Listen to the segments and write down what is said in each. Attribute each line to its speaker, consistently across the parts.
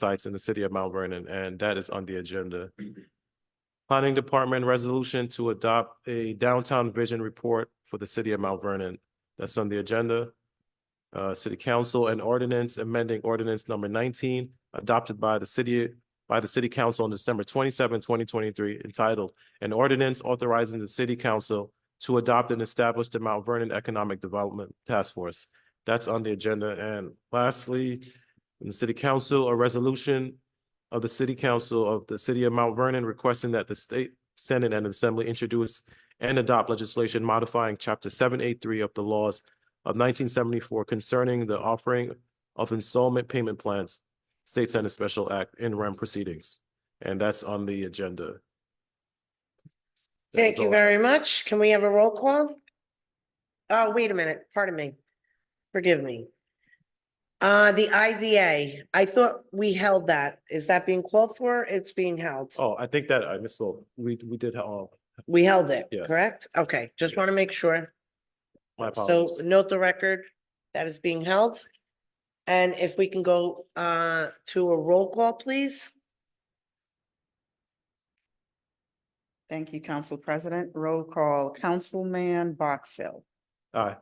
Speaker 1: sites in the city of Mount Vernon, and that is on the agenda. Planning Department resolution to adopt a downtown vision report for the city of Mount Vernon. That's on the agenda. Uh, City Council and ordinance amending ordinance number nineteen adopted by the city, by the City Council on December 27, 2023, entitled an ordinance authorizing the city council to adopt and establish the Mount Vernon Economic Development Task Force. That's on the agenda. And lastly, in the city council, a resolution of the city council of the city of Mount Vernon requesting that the state senate and assembly introduce and adopt legislation modifying chapter seven eight three of the laws of nineteen seventy-four concerning the offering of installment payment plans, state senate special act in rem proceedings. And that's on the agenda.
Speaker 2: Thank you very much. Can we have a roll call? Oh, wait a minute, pardon me. Forgive me. Uh, the IDA, I thought we held that. Is that being called for? It's being held.
Speaker 1: Oh, I think that I misspoke. We, we did, oh,
Speaker 2: We held it,
Speaker 1: Yes.
Speaker 2: correct? Okay, just want to make sure.
Speaker 1: my
Speaker 2: So
Speaker 1: apologies.
Speaker 2: note the record that is being held. And if we can go uh to a roll call, please?
Speaker 3: Thank you, Council President. Roll call, Councilman Box Hill,
Speaker 1: Aye.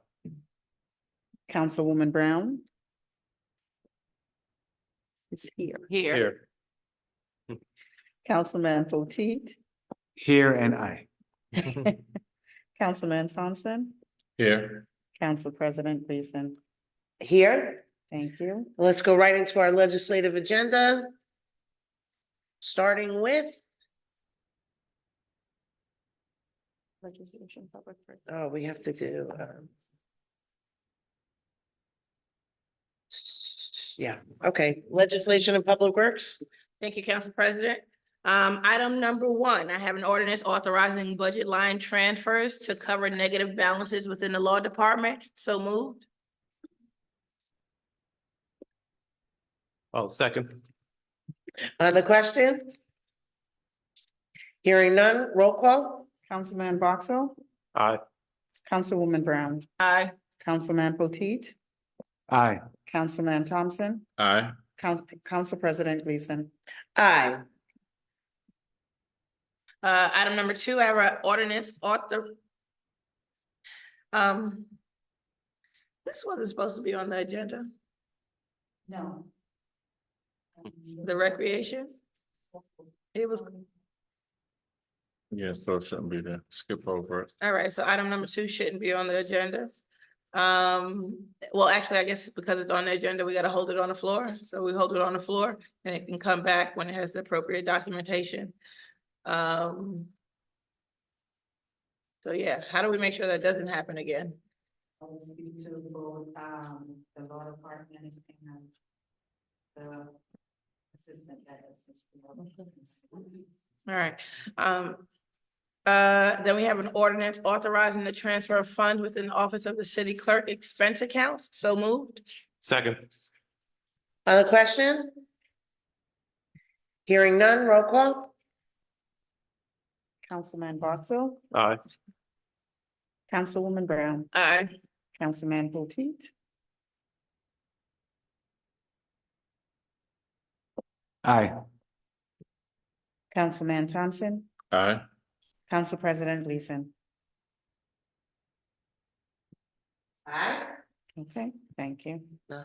Speaker 3: Councilwoman Brown. Is here.
Speaker 4: Here.
Speaker 1: Here.
Speaker 3: Councilman Potteet,
Speaker 5: Here and I.
Speaker 3: Councilman Thompson,
Speaker 5: Here.
Speaker 3: Council President Gleason.
Speaker 2: Here,
Speaker 3: Thank you.
Speaker 2: let's go right into our legislative agenda. Starting with
Speaker 3: Legislation, public.
Speaker 2: Oh, we have to do, um. Yeah, okay, legislation and public works,
Speaker 4: Thank you, Council President. Um, item number one, I have an ordinance authorizing budget line transfers to cover negative balances within the law department. So moved.
Speaker 1: Oh, second.
Speaker 2: other questions? Hearing none, roll call,
Speaker 3: Councilman Box Hill,
Speaker 1: Aye.
Speaker 3: Councilwoman Brown,
Speaker 4: Aye.
Speaker 3: Councilman Potteet,
Speaker 5: Aye.
Speaker 3: Councilman Thompson,
Speaker 5: Aye.
Speaker 3: Coun- Council President Gleason.
Speaker 2: aye,
Speaker 4: Uh, item number two, I have an ordinance author. Um. This wasn't supposed to be on the agenda,
Speaker 3: No.
Speaker 4: the recreation. It was,
Speaker 5: Yeah, so it shouldn't be there. Skip over it.
Speaker 4: all right, so item number two shouldn't be on the agenda. Um, well, actually, I guess because it's on the agenda, we gotta hold it on the floor, so we hold it on the floor and it can come back when it has the appropriate documentation. Um. So yeah, how do we make sure that doesn't happen again?
Speaker 3: I'll speak to both, um, the law department and the assistant that is.
Speaker 4: All right, um. Uh, then we have an ordinance authorizing the transfer of funds within the office of the city clerk expense accounts, so moved.
Speaker 1: Second.
Speaker 2: other question? Hearing none, roll call,
Speaker 3: Councilman Boxell,
Speaker 1: Aye.
Speaker 3: Councilwoman Brown,
Speaker 4: Aye.
Speaker 3: Councilman Potteet,
Speaker 5: Aye.
Speaker 3: Councilman Thompson,
Speaker 5: Aye.
Speaker 3: Council President Gleason.
Speaker 2: aye,
Speaker 3: Okay, thank you.
Speaker 4: Uh,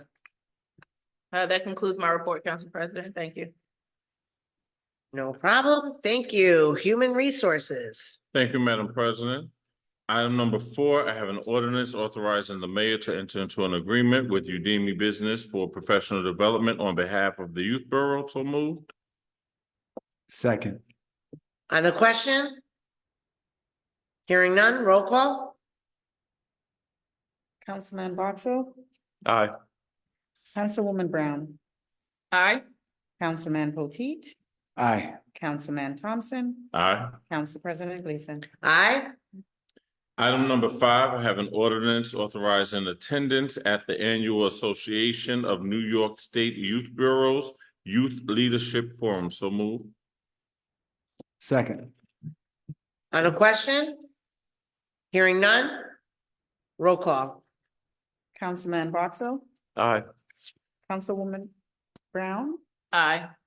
Speaker 4: that concludes my report, Council President, thank you.
Speaker 2: no problem, thank you, human resources,
Speaker 6: Thank you, Madam President. Item number four, I have an ordinance authorizing the mayor to enter into an agreement with Udemy Business for professional development on behalf of the youth borough. So moved.
Speaker 5: Second.
Speaker 2: other question? Hearing none, roll call,
Speaker 3: Councilman Boxell,
Speaker 1: Aye.
Speaker 3: Councilwoman Brown,
Speaker 4: Aye.
Speaker 3: Councilman Potteet,
Speaker 5: Aye.
Speaker 3: Councilman Thompson,
Speaker 6: Aye.
Speaker 3: Council President Gleason.
Speaker 2: aye,
Speaker 6: Item number five, I have an ordinance authorizing attendance at the annual Association of New York State Youth Bureaus Youth Leadership Forum. So moved.
Speaker 5: Second.
Speaker 2: other question? Hearing none, roll call.
Speaker 3: Councilman Boxell,
Speaker 1: Aye.
Speaker 3: Councilwoman Brown,
Speaker 4: Aye.